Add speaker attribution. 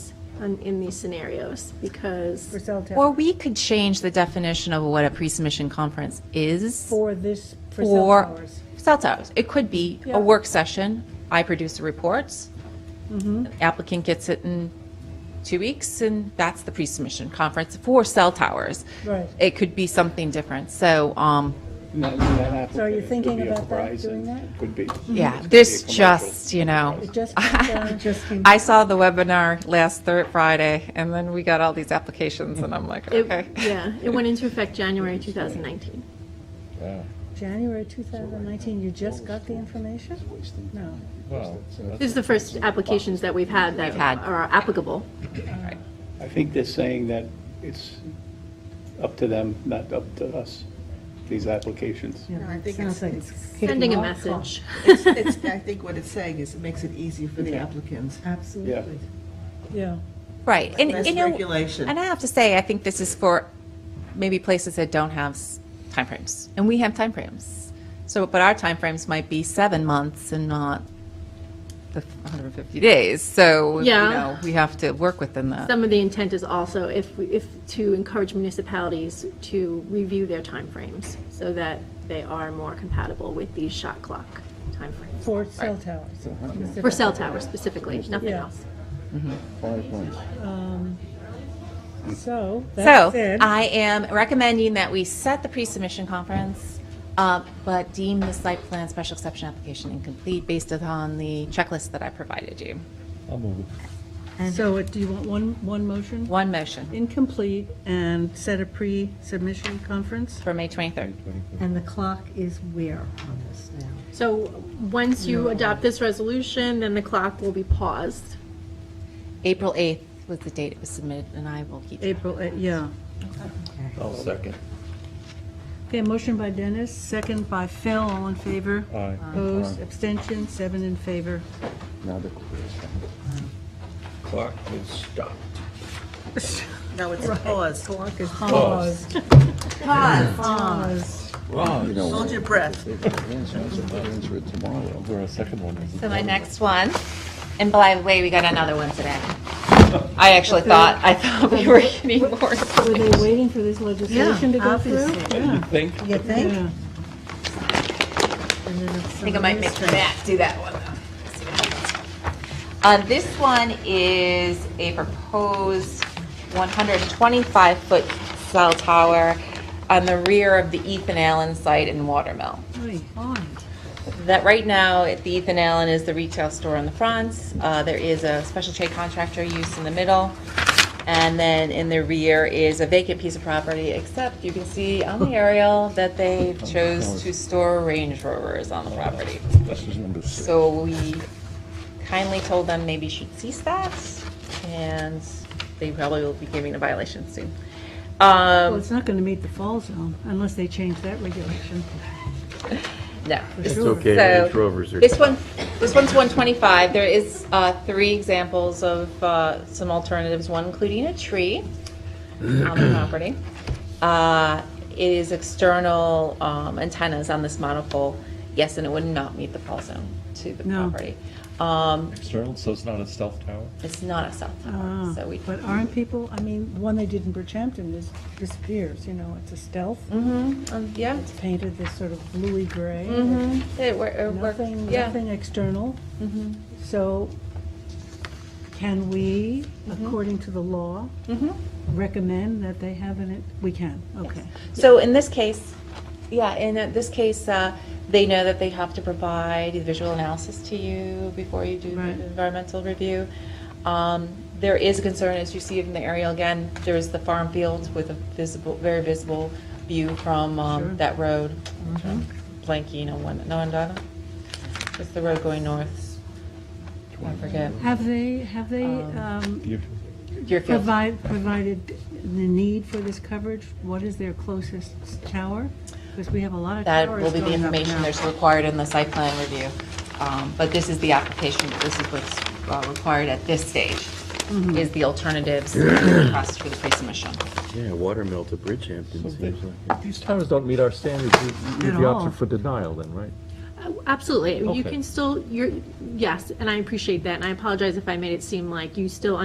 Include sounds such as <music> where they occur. Speaker 1: on, in these scenarios because,
Speaker 2: For cell tower.
Speaker 3: Or we could change the definition of what a pre-submission conference is
Speaker 2: For this, for cell
Speaker 3: for
Speaker 2: towers.
Speaker 3: cell towers. It could be
Speaker 2: Yeah.
Speaker 3: a work session, I produce the reports,
Speaker 2: Mm-hmm.
Speaker 3: applicant gets it in two weeks, and that's the pre-submission conference for cell towers.
Speaker 2: Right.
Speaker 3: It could be something different, so, um,
Speaker 4: And that- and that
Speaker 2: So are you
Speaker 4: applicant, it could
Speaker 2: thinking
Speaker 4: be a
Speaker 2: about that,
Speaker 4: Verizon,
Speaker 2: doing that?
Speaker 4: it Could be.
Speaker 3: yeah,
Speaker 4: It could be a
Speaker 3: this
Speaker 4: commercial.
Speaker 3: just, you know.
Speaker 2: Mm-hmm. It
Speaker 3: <laughs>
Speaker 2: just came down, it just came.
Speaker 3: I saw the webinar last third Friday, and then we got all these applications, and I'm like,
Speaker 1: it-
Speaker 3: okay.
Speaker 1: yeah, it went into effect January 2019.
Speaker 5: Wow.
Speaker 2: January 2019, you just got the information? No.
Speaker 5: Well,
Speaker 1: This is the first applications that we've had that
Speaker 3: had.
Speaker 1: are applicable.
Speaker 4: I think they're saying that it's up to them, not up to us, these applications.
Speaker 2: Yeah,
Speaker 6: I think
Speaker 2: sounds
Speaker 6: it's-
Speaker 2: like
Speaker 6: it's
Speaker 2: kicking
Speaker 1: Sending a
Speaker 2: off clock.
Speaker 1: message. <laughs>
Speaker 6: It's, <laughs> it's, I think what it's saying is it makes it easier for the applicants.
Speaker 2: Uh,
Speaker 4: Yeah.
Speaker 2: Absolutely, yeah.
Speaker 3: Right, and
Speaker 6: Less
Speaker 3: you know,
Speaker 6: regulation.
Speaker 3: and I have to say, I think this is for maybe places that don't have s- timeframes, and we have timeframes. So, but our timeframes might be seven months and not the 150 days.
Speaker 1: Yeah.
Speaker 3: So, you know, we have to work within that.
Speaker 1: Some of the intent is also if, we- if, to encourage municipalities to review their timeframes so that they are more compatible with these shot clock timeframes.
Speaker 2: For cell towers.
Speaker 1: For cell towers specifically, nothing
Speaker 2: Yeah.
Speaker 1: else.
Speaker 5: five months.
Speaker 2: So,
Speaker 3: So, uh,
Speaker 2: that said,
Speaker 3: I am recommending that we set the pre-submission conference, uh, but deem the site plan special exception application incomplete based upon the checklist that I provided you.
Speaker 5: I'll move it.
Speaker 2: so what- do you want one, one motion?
Speaker 3: One motion
Speaker 2: Incomplete and set a pre-submission conference?
Speaker 3: for May 23rd.
Speaker 7: And the clock is where on this now?
Speaker 1: So once you adopt this resolution, then the clock will be paused.
Speaker 3: April 8th was the date it was submitted, and I will keep.
Speaker 2: April, eh, yeah.
Speaker 5: I'll second.
Speaker 2: Okay, motion by Dennis, second by Phil, all in favor?
Speaker 5: Aye.
Speaker 2: Opposed, abstention, seven in favor.
Speaker 5: Now the clock is stopped.
Speaker 6: No, it's paused.
Speaker 2: Pause.
Speaker 5: You know,
Speaker 6: Hold your breath.
Speaker 5: if it ends, I said, that ends with tomorrow. Or a second one.
Speaker 3: So my next one, and by the way, we got another one today. I actually thought, I thought we were getting more.
Speaker 2: Were they waiting for this legislation to go through?
Speaker 7: Obviously.
Speaker 4: You think?
Speaker 7: You think?
Speaker 2: Yeah.
Speaker 7: And then if
Speaker 3: I think I
Speaker 7: somebody
Speaker 3: might make
Speaker 7: is-
Speaker 3: Matt do that one, though. Uh, this one is a proposed 125-foot cell tower on the rear of the Ethan Allen site in Watermill.
Speaker 2: Aye.
Speaker 3: Um, that right now, at the Ethan Allen is the retail store in the front. Uh, There is a special trade contractor use in the middle. And then in the rear is a vacant piece of property, except you can see on
Speaker 5: <laughs>
Speaker 3: the aerial that they chose to store Range Rovers on the property.
Speaker 5: Oh This is number six.
Speaker 3: So we kindly told them maybe you should cease that, and they probably will be giving a violation soon.
Speaker 2: Well,
Speaker 3: Um,
Speaker 2: it's not going to meet the fall zone unless they change that
Speaker 3: <laughs>
Speaker 2: regulation.
Speaker 3: No.
Speaker 2: It's
Speaker 8: okay,
Speaker 3: So,
Speaker 8: Range Rovers are-
Speaker 3: This one, this one's 125. There is uh, three examples of uh, some alternatives, one including a tree on
Speaker 8: <clears throat>
Speaker 3: the property. Uh, It is external um, antennas on this monopole. Yes, and it would not meet the fall zone to the
Speaker 2: No.
Speaker 3: property. Um,
Speaker 9: external, so it's not a stealth tower?
Speaker 3: It's not a cell tower, so we.
Speaker 2: Uh, Ah, But aren't people, I mean, the one they did in Bridgehampton is, disappears, you know, it's a stealth.
Speaker 3: Mhm, um, Yeah,
Speaker 2: It's painted this sort of bluey gray.
Speaker 3: mhm, it wor- it worked,
Speaker 2: Nothing,
Speaker 3: yeah. Mm-hmm.
Speaker 2: nothing external. So can we,
Speaker 3: Mm-hmm.
Speaker 2: according to the law,
Speaker 3: Mhm.
Speaker 2: recommend that they have an, we can, okay.
Speaker 3: So in this case, yeah, in uh, this case, uh, they know that they have to provide visual analysis to you before you do the
Speaker 2: Right.
Speaker 3: environmental review. Um, There is a concern, as you see it in the aerial again, there's the farm field with a visible, very visible view from um,
Speaker 2: Sure. Mm-hmm.
Speaker 3: that road. Blanking on one, no, Donna? It's the road going north. I forget.
Speaker 2: Have they, have they
Speaker 3: Um,
Speaker 2: um,
Speaker 3: Deerfield.
Speaker 2: Provide, provided the need for this coverage, what is their closest tower? Because we have a lot of
Speaker 3: That
Speaker 2: towers
Speaker 3: will be the
Speaker 2: going up
Speaker 3: information
Speaker 2: now.
Speaker 3: that's required in the site plan review. Um, But this is the application, this is what's uh, required at this stage, is the alternatives request for the pre-submission.
Speaker 8: Yeah, Watermill to Bridgehampton seems like.
Speaker 5: If These towers don't meet our standards, you- you
Speaker 2: At
Speaker 5: have the
Speaker 2: all.
Speaker 5: option for denial then, right?
Speaker 1: Uh, Absolutely. You
Speaker 5: Okay.
Speaker 1: can still, you're, yes, and I appreciate that. And I apologize if I made it seem like you still